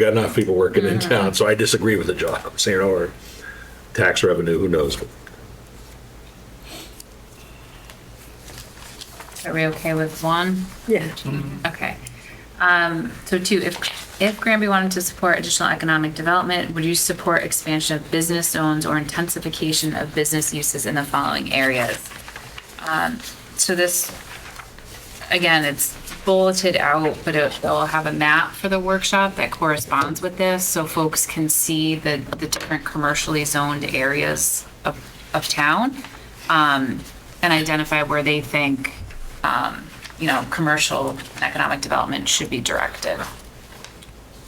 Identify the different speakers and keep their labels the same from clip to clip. Speaker 1: got enough people working in
Speaker 2: Mm-hmm.
Speaker 1: town, so I disagree with the job, I'm saying, or tax revenue, who knows?
Speaker 3: Are we okay with one? Mm-hmm.
Speaker 2: Yeah.
Speaker 3: Okay. Um, so two, if, if Granby wanted to support additional economic development, would you support expansion of business zones or intensification of business uses in the following areas? Um, so this, again, it's bulleted out, but it, they'll have a map for the workshop that corresponds with this, so folks can see the, the different commercially zoned areas of, of town. Um, and identify where they think, um, you know, commercial and economic development should be directed.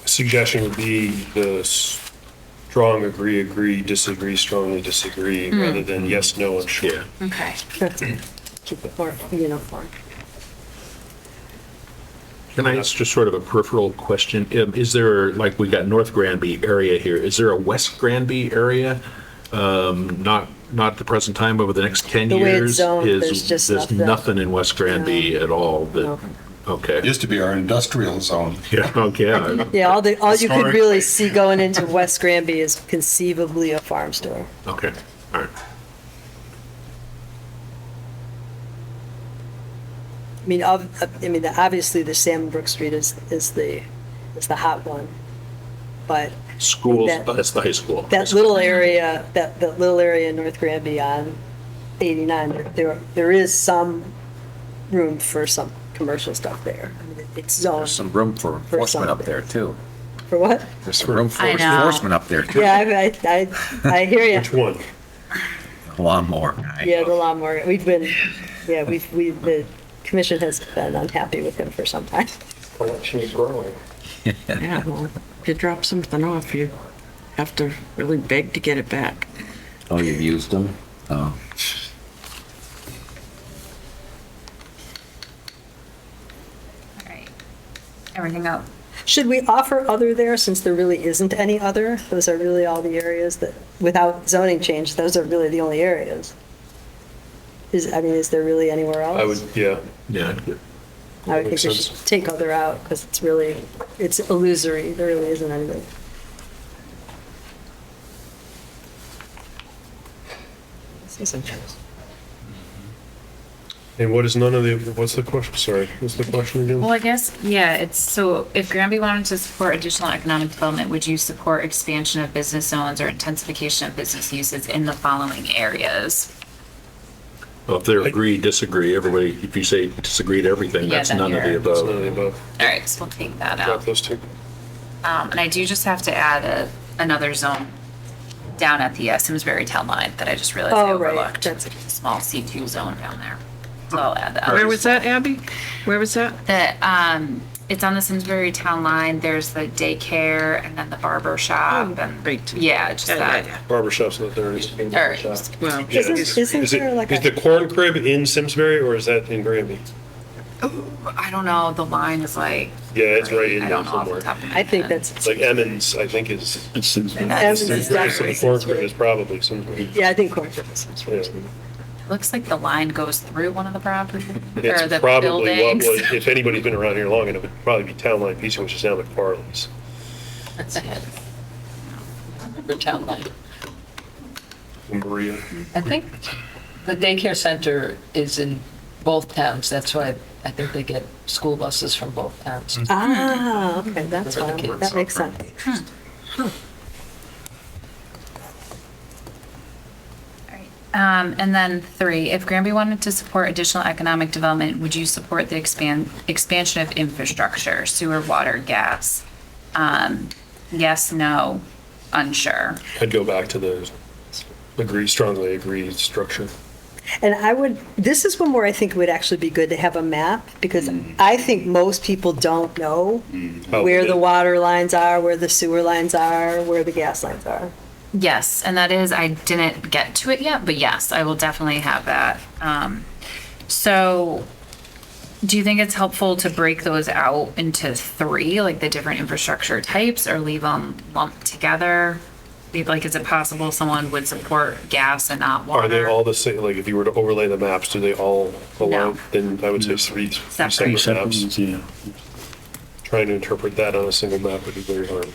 Speaker 4: suggestion would be the strong agree, agree, disagree, strongly disagree,
Speaker 3: Hmm.
Speaker 4: rather than yes, no, and sure.
Speaker 1: Yeah,
Speaker 3: Okay.
Speaker 2: Keep it more uniform.
Speaker 5: Can I ask just sort of a peripheral question? Um, Is there, like, we've got North Granby area here, is there a West Granby area? Um, Not, not at the present time, but over the next 10
Speaker 2: The
Speaker 5: years?
Speaker 2: way it's zoned,
Speaker 5: is-
Speaker 2: there's just nothing.
Speaker 5: There's nothing in West Granby at all that,
Speaker 2: No.
Speaker 5: okay.
Speaker 6: Used to be our industrial zone.
Speaker 5: Yeah, okay,
Speaker 2: Yeah, all the, all you could
Speaker 6: Historic.
Speaker 2: really see going into West Granby is conceivably a farm store.
Speaker 5: okay, all right.
Speaker 2: I mean, ob, I mean, obviously the Salmon Brook Street is, is the, is the hot one. But
Speaker 5: Schools,
Speaker 2: That-
Speaker 5: that's the high school.
Speaker 2: that little area, that, that little area in North Granby on eighty-nine, there- there, there is some room for some commercial stuff there. I mean, It's
Speaker 7: There's
Speaker 2: zoned
Speaker 7: some room for enforcement up
Speaker 2: something.
Speaker 7: there too.
Speaker 2: for what?
Speaker 7: There's some room for
Speaker 3: I know.
Speaker 7: enforcement up there too.
Speaker 2: Yeah, I, I, I I hear you.
Speaker 4: Which one?
Speaker 7: Lawnmower. guy.
Speaker 2: Yeah, the lawnmower. We've been, yeah, we've, we, the commission has been unhappy with him for some time.
Speaker 4: Collection is growing.
Speaker 8: Yeah, well, if you drop something off, you have to really beg to get it back.
Speaker 7: Oh, you've used them? Oh.
Speaker 3: All right. Everything else.
Speaker 2: Should we offer other there since there really isn't any other? Those are really all the areas that, without zoning change, those are really the only areas. Is, I mean, is there really anywhere else?
Speaker 4: I would, yeah.
Speaker 5: Yeah,
Speaker 2: I would
Speaker 4: makes
Speaker 2: think we
Speaker 4: sense.
Speaker 2: should take other out because it's really, it's illusory. There really isn't anything. See some trees.
Speaker 4: And what is none of the, what's the question? Sorry, what's the question again?
Speaker 3: Well, I guess, yeah, it's, so if Granby wanted to support additional economic development, would you support expansion of business zones or intensification of business uses in the following areas?
Speaker 5: Well, if they're agree, disagree, everybody, if you say disagree to everything,
Speaker 3: Yeah,
Speaker 5: that's
Speaker 3: then
Speaker 5: none of the
Speaker 3: you're-
Speaker 4: It's none
Speaker 5: above.
Speaker 4: of the above.
Speaker 3: All right, so we'll take that
Speaker 4: Drop
Speaker 3: out.
Speaker 4: those two.
Speaker 3: Um, and I do just have to add a, another zone down at the uh, Simsbury town line that I just realized I
Speaker 2: Oh, right.
Speaker 3: overlooked. That's a small C2 zone down there. So I'll add that.
Speaker 8: Where was that, Abby? Where was that?
Speaker 3: The, um, it's on the Simsbury town line. There's the daycare and then the barber shop and.
Speaker 8: great.
Speaker 3: Yeah, just that.
Speaker 4: Barbershops in the thirties.
Speaker 3: Or just-
Speaker 8: Well,
Speaker 4: Yeah.
Speaker 2: Isn't-
Speaker 4: Is
Speaker 2: isn't
Speaker 4: is it-
Speaker 2: there like
Speaker 4: is
Speaker 2: a-
Speaker 4: the corn crib in Simsbury or is that in Granby?
Speaker 3: I don't know, the line is like.
Speaker 4: Yeah, it's right in
Speaker 3: I
Speaker 4: there
Speaker 3: don't know off the
Speaker 4: somewhere.
Speaker 3: top of my
Speaker 2: I think
Speaker 3: head.
Speaker 2: that's,
Speaker 4: It's like Emmons, I think is.
Speaker 2: Evans is
Speaker 4: Simsbury,
Speaker 2: definitely
Speaker 4: so Corn crib
Speaker 2: Simsbury.
Speaker 4: is probably Simsbury.
Speaker 2: Yeah, I think Cornford is Simsbury.
Speaker 4: Yeah.
Speaker 3: Looks like the line goes through one of the properties or
Speaker 4: It's
Speaker 3: the
Speaker 4: probably what was,
Speaker 3: buildings.
Speaker 4: if anybody's been around here long, enough, it would probably be Town Line Pizza, which is now McFarland's.
Speaker 9: for town line.
Speaker 4: Maria.
Speaker 9: I think the daycare center is in both towns, that's why I think they get school buses from both towns.
Speaker 2: Ah, okay, that's
Speaker 9: For the
Speaker 2: why,
Speaker 9: kids.
Speaker 2: that makes sense.
Speaker 3: Um, and then three, if Granby wanted to support additional economic development, would you support the expand, expansion of infrastructure, sewer, water, gas? Um, yes, no, unsure.
Speaker 4: I'd go back to the agree, strongly agreed structure.
Speaker 2: And I would, this is one where I think it would actually be good to have a map, because I think most people don't know where the water lines are, where the sewer lines are, where the gas lines are.
Speaker 3: Yes, and that is, I didn't get to it yet, but yes, I will definitely have that. Um, so do you think it's helpful to break those out into three, like the different infrastructure types, or leave them lumped together? Like, is it possible someone would support gas and not water?
Speaker 4: Are they all the same, like, if you were to overlay the maps, do they all
Speaker 3: No.
Speaker 4: align? Then I would say three, three
Speaker 3: Separate.
Speaker 4: separate maps. trying to interpret that on a single map would be very hard.